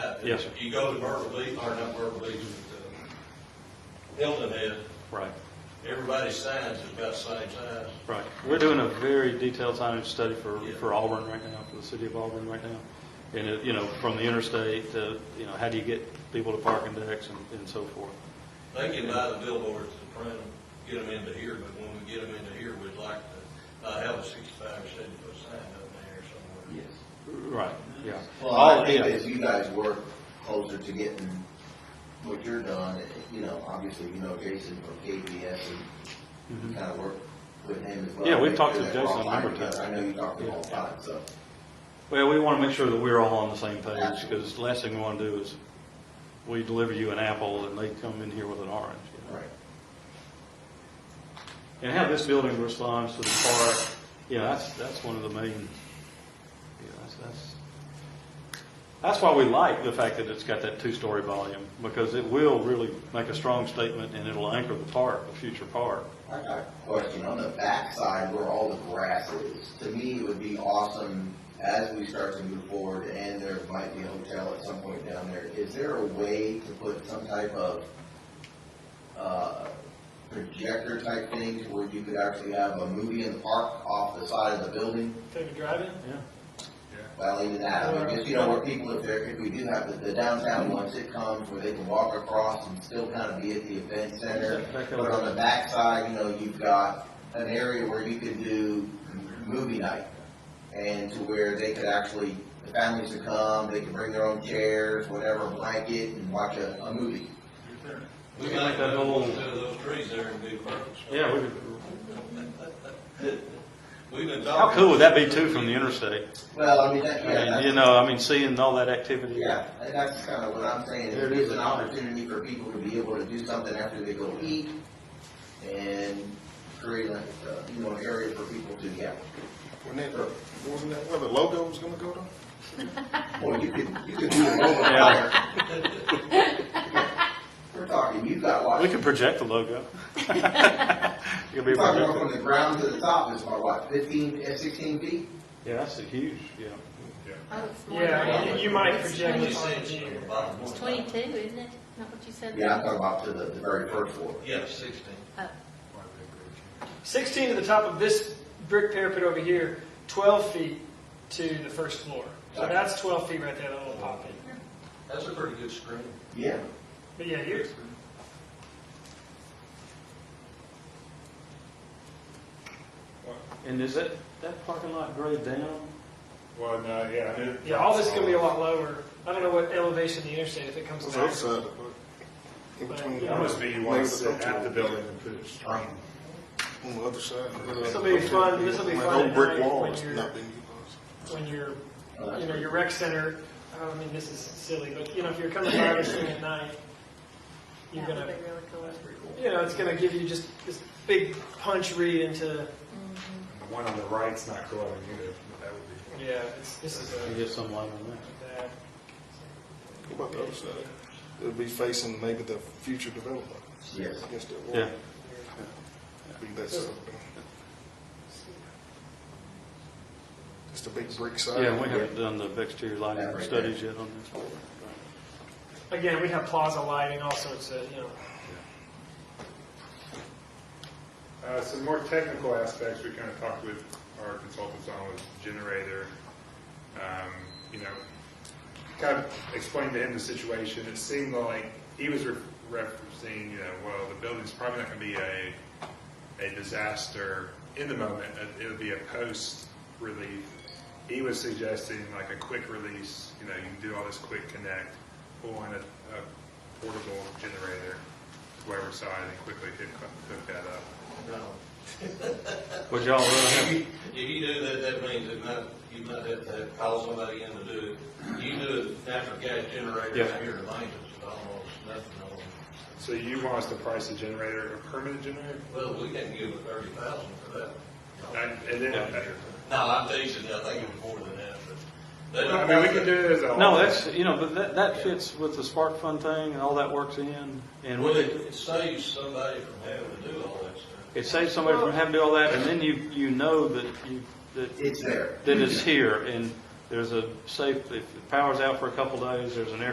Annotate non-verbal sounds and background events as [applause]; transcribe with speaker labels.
Speaker 1: that.
Speaker 2: Yes, sir.
Speaker 1: You go to Myrtle Beach, or not Myrtle Beach, but uh, Hilton Head,
Speaker 2: Right,
Speaker 1: everybody's signs is about the same size.
Speaker 2: right. We're doing a very detailed signage study for,
Speaker 1: Yeah.
Speaker 2: for Auburn right now, for the city of Auburn right now. And, it- you know, from the interstate to, you know, how do you get people to parking decks and, and so forth.
Speaker 1: They can buy the billboards and print them, get them into here, but when we get them into here, we'd like to, uh, have a sixty-five or seventy foot sign up there somewhere.
Speaker 3: Yes.
Speaker 2: Right, yeah.
Speaker 3: Well, I
Speaker 2: All-
Speaker 3: think
Speaker 2: yeah.
Speaker 3: as you guys work closer to getting what you're done, you know, obviously, you know, Jason from KPS and
Speaker 2: Mm-hmm.
Speaker 3: kind of work with him as well.
Speaker 2: Yeah, we've
Speaker 3: Make
Speaker 2: talked
Speaker 3: sure
Speaker 2: to
Speaker 3: that we're all
Speaker 2: Jason a number of
Speaker 3: firing
Speaker 2: times.
Speaker 3: together. I know you talked to him all the
Speaker 2: Yeah.
Speaker 3: time, so.
Speaker 2: Well, we want to make sure that we're all on the same page,
Speaker 3: Absolutely.
Speaker 2: because last thing we want to do is, we deliver you an apple and they come in here with an orange. you know.
Speaker 3: Right.
Speaker 2: And how this building responds to the park, yeah, that's, that's one of the main, yeah, that's, that's, that's why we like the fact that it's got that two-story volume, because it will really make a strong statement and it'll anchor the park, the future park.
Speaker 3: I got a question on the backside where all the grass is. To me, it would be awesome as we start to move forward and there might be a hotel at some point down there. Is there a way to put some type of, uh, projector type thing to where you could actually have a movie in the park off the side of the building?
Speaker 4: Take a drive-in?
Speaker 2: Yeah.
Speaker 3: Well, even that, I mean, just, you know, where people, if they're, if we do have the- the downtown ones, it comes where they can walk across and still kind of be at the event center. But on the backside, you know, you've got an area where you could do movie night. And to where they could actually, the families could come, they could bring their own chairs, whatever, blanket, and watch a, a movie.
Speaker 1: We might
Speaker 2: That
Speaker 1: go
Speaker 2: whole-
Speaker 1: one of those trees there and do purpose.
Speaker 2: Yeah, we could-
Speaker 1: We've been talking.
Speaker 2: how cool would that be too from the interstate?
Speaker 3: Well, I mean, that,
Speaker 2: I
Speaker 3: yeah,
Speaker 2: mean, You
Speaker 3: that's,
Speaker 2: know, I mean, seeing all that activity.
Speaker 3: yeah, and that's kind of what I'm saying,
Speaker 2: There
Speaker 3: it
Speaker 2: it
Speaker 3: is
Speaker 2: is.
Speaker 3: an opportunity for people to be able to do something after they go eat and create a, uh, you know, an area for people to, yeah.
Speaker 5: When that, wasn't that where the logo was gonna go to?
Speaker 3: Boy, you could, you could do a mobile fire. We're talking, you've got
Speaker 2: We
Speaker 3: what,
Speaker 2: could project the
Speaker 3: [laughs]
Speaker 2: logo. It could be
Speaker 3: we're talking about from
Speaker 2: projected.
Speaker 3: the ground to the top is about what, fifteen, eh, sixteen feet?
Speaker 2: Yeah, that's a huge, yeah.
Speaker 6: Oh, it's more than
Speaker 4: Yeah,
Speaker 6: that.
Speaker 4: and you might
Speaker 6: It's
Speaker 4: project
Speaker 1: Twenty
Speaker 4: it
Speaker 1: cents
Speaker 4: on the
Speaker 1: on the
Speaker 4: view.
Speaker 1: bottom one.
Speaker 6: It's twenty-two, isn't it? Not what you said?
Speaker 3: Yeah, I'm talking about to the, the very first floor.
Speaker 1: Yeah, sixteen.
Speaker 6: Oh.
Speaker 4: Sixteen to the top of this brick parapet over here, twelve feet to the first floor. So
Speaker 3: Gotcha.
Speaker 4: that's twelve feet right there, that little pop in.
Speaker 1: That's a pretty good screen.
Speaker 3: Yeah,
Speaker 4: But yeah, you're,
Speaker 2: And is that, that parking lot grade down?
Speaker 7: Well, no, yeah. it-
Speaker 4: yeah, all this is gonna be a lot lower. I don't know what elevation the interstate, if it
Speaker 5: It
Speaker 4: comes
Speaker 5: was
Speaker 4: back.
Speaker 5: outside, but in between.
Speaker 7: It must be you want to sit at the
Speaker 5: On
Speaker 7: building and put a screen.
Speaker 5: the other side.
Speaker 4: This'll be fun- this'll be
Speaker 5: My
Speaker 4: fun
Speaker 5: old brick
Speaker 4: tonight
Speaker 5: wall
Speaker 4: when
Speaker 5: is
Speaker 4: you're-
Speaker 5: not being utilized.
Speaker 4: When you're, you know, your rec center, I mean, this is silly, but you know, if you're coming by this thing at night, you're
Speaker 6: That would
Speaker 4: gonna,
Speaker 6: be really cool.
Speaker 4: you know, it's gonna give you just this big punch read into,
Speaker 7: And The one on the right's not glowing either, but that would be.
Speaker 4: yeah, it's, this is
Speaker 2: I
Speaker 4: a,
Speaker 2: get some light on that.
Speaker 4: bad.
Speaker 5: What about the other side? It'll be facing maybe the future development
Speaker 3: yes.
Speaker 5: against that wall.
Speaker 2: Yeah,
Speaker 5: Be that side. of the building. Just a big brick side.
Speaker 2: yeah, we haven't done the exterior lighting studies yet on this.
Speaker 4: Again, we have plaza lighting, all sorts of, you know,
Speaker 7: Uh, Some more technical aspects we kind of talked with our consultants on was generator. Um, You know, kind of explained to him the situation. It seemed like he was re- referencing, you know, well, the building's probably not going to be a, a disaster in the moment. It- It'll be a post relief. He was suggesting like a quick release, you know, you can do all this quick connect, pull in a a portable generator to whatever side and quickly hook hook that up.
Speaker 1: No.
Speaker 2: Would y'all rather have,
Speaker 1: If you do that, that means it might, you might have to call somebody in to do it. You do a natural gas generator
Speaker 2: Yeah.
Speaker 1: out here in Langdon, it's almost nothing on it.
Speaker 7: So you want us to price a generator, a permanent generator?
Speaker 1: Well, we can give it thirty thousand for that.
Speaker 7: And and then,
Speaker 1: No, I'm teasing, you. I think it was more than that, but. they
Speaker 7: I
Speaker 1: don't-
Speaker 7: mean, we can do it as a.
Speaker 2: no, that's, you know, but that, that fits with the spark fun thing and all that works in. And
Speaker 1: Well,
Speaker 2: we
Speaker 1: it
Speaker 2: could-
Speaker 1: it saves somebody from having to do all that stuff.
Speaker 2: it saves somebody from having to do all that and then you, you know that you, that,
Speaker 3: It's there.
Speaker 2: that it's here and there's a safe, if the power's out for a couple days, there's an air